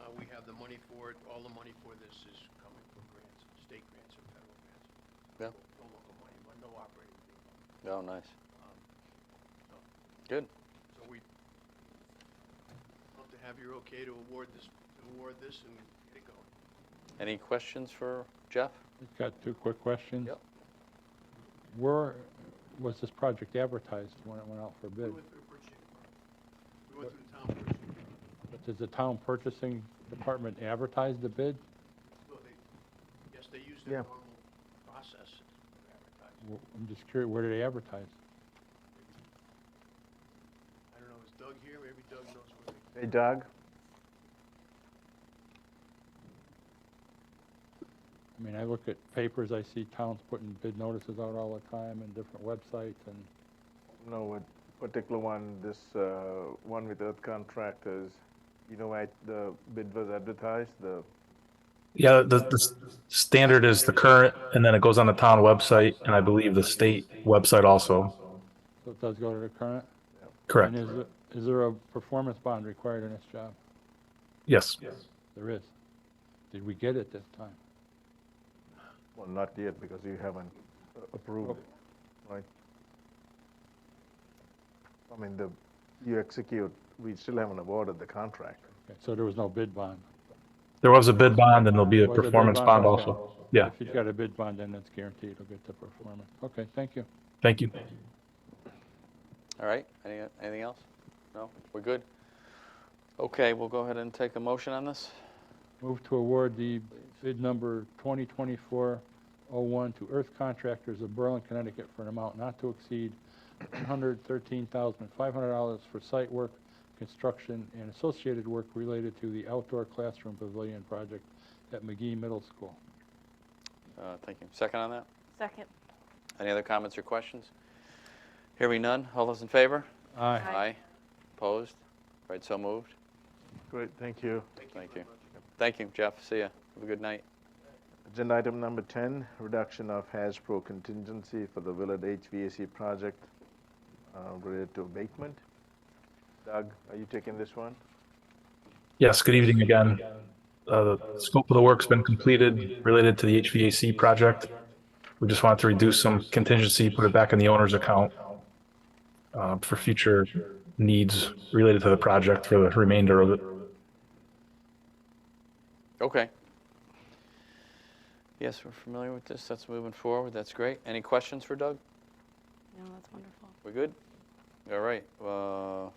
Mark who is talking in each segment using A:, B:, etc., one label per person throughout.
A: Uh, We have the money for it, all the money for this is coming from grants, state grants and federal grants.
B: Yeah.
A: No local money, but no operating. fee.
B: Oh, nice.
A: Um, so-
B: Good.
A: So we love to have your okay to award this, to award this and get it going.
B: Any questions for Jeff?
C: I've Got two quick questions.
B: Yep.
C: Where was this project advertised when it went out for
A: We
C: bid?
A: went through the purchasing department. We went through the town purchasing department.
C: Does the town purchasing department advertise the bid?
A: No, they, yes, they used their
D: Yeah.
A: normal process to advertise.
C: W- I'm just curious, where do they advertise?
A: I don't know, is Doug here? Maybe Doug knows where they,
D: Hey, Doug?
C: I mean, I look at papers, I see towns putting bid notices out all the time and different websites, and
D: No, what particular one, this uh, one with Earth Contractors, you know, I, the bid was advertised, the,
E: Yeah, the, the s- standard is the current, and then it goes on the town website, and I believe the state website also.
C: so it does go to the current?
E: Correct.
C: And is, it- is there a performance bond required in this job?
E: Yes.
C: There is. Did we get it this time?
D: well, not yet, because you haven't uh, approved it, right? I mean, the, you execute, we still haven't awarded the contract.
C: Okay, So there was no bid bond?
E: There was a bid bond, and there'll be a
C: Was there a bid
E: performance
C: bond?
E: bond also.
C: Okay.
E: Yeah,
C: If you've got a bid bond, then it's guaranteed it'll get the performance. Okay, thank you.
E: thank you.
B: All right, any, anything else? No, we're good? Okay, we'll go ahead and take a motion on this.
C: Move to award the bid number 2024-01 to Earth Contractors of Berlin, Connecticut for an amount not to exceed $113,500 for site work, construction, and associated work related to the outdoor classroom pavilion project at McGee Middle School.
B: Uh, thank you. Second on that?
F: Second.
B: Any other comments or questions? Hearing none, all those in favor?
C: Aye.
F: Aye.
B: Opposed? All right, so moved.
D: Great, thank you.
B: Thank you. Thank you, Jeff, see ya. Have a good night.
D: Agenda item number 10, reduction of Hasbro contingency for the Willard HVAC project uh, related to abatement. Doug, are you taking this one?
E: Yes, good evening again. Uh, the scope of the work's been completed related to the HVAC project. We just wanted to reduce some contingency, put it back in the owner's account uh, for future needs related to the project for the remainder of it.
B: Okay. Yes, we're familiar with this, that's moving forward, that's great. Any questions for Doug?
F: No, that's wonderful.
B: We're good? All right, uh,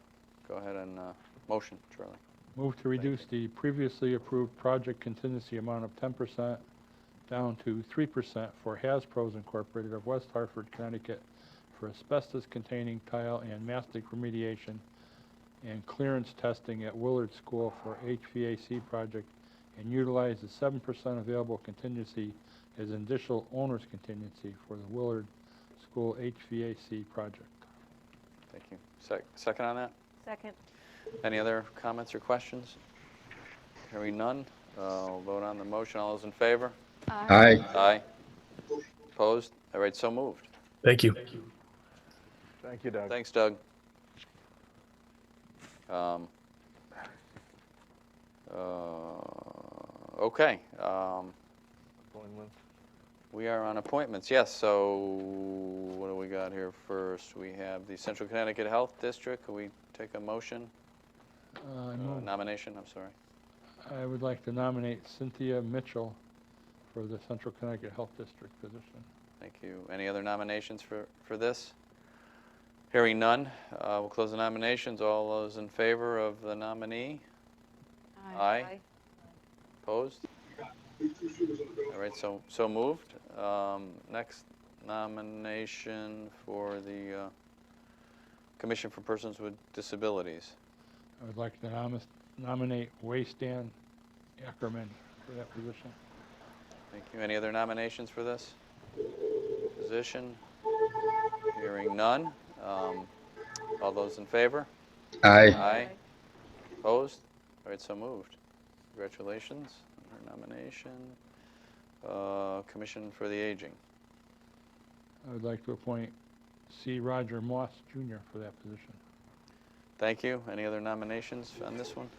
B: go ahead and, uh, motion, Charlie.
C: Move to reduce the previously approved project contingency amount of 10% down to 3% for Hasbro's Incorporated of West Hartford, Connecticut for asbestos-containing tile and mastic remediation and clearance testing at Willard School for HVAC project and utilize the 7% available contingency as initial owner's contingency for the Willard School HVAC project.
B: Thank you. Sec- Second on that?
F: Second.
B: Any other comments or questions? Hearing none, uh, I'll vote on the motion. All those in favor?
G: Aye.
B: Aye. Opposed? All right, so moved.
E: Thank you.
D: Thank you, Doug.
B: Thanks, Doug. Um, uh, Okay, um,
D: Appointment.
B: we are on appointments, yes, so what do we got here first? We have the Central Connecticut Health District. Can we take a motion,
C: Uh, I
B: Uh,
C: move-
B: nomination, I'm sorry?
C: I would like to nominate Cynthia Mitchell for the Central Connecticut Health District position.
B: Thank you. Any other nominations for, for this? Hearing none, uh, we'll close the nominations. All those in favor of the nominee? Aye. Opposed? All right, so, so moved. Um, Next nomination for the uh, Commission for Persons with Disabilities.
C: I would like to nomis- nominate Waystan Ackerman for that position.
B: Thank you. Any other nominations for this position? Hearing none. Um, All those in favor?
G: Aye.
B: Aye. Opposed? All right, so moved. Congratulations on her nomination. Uh, Commission for the Aging.
C: I would like to appoint C. Roger Moss Jr. for that position.
B: Thank you. Any other nominations on this one?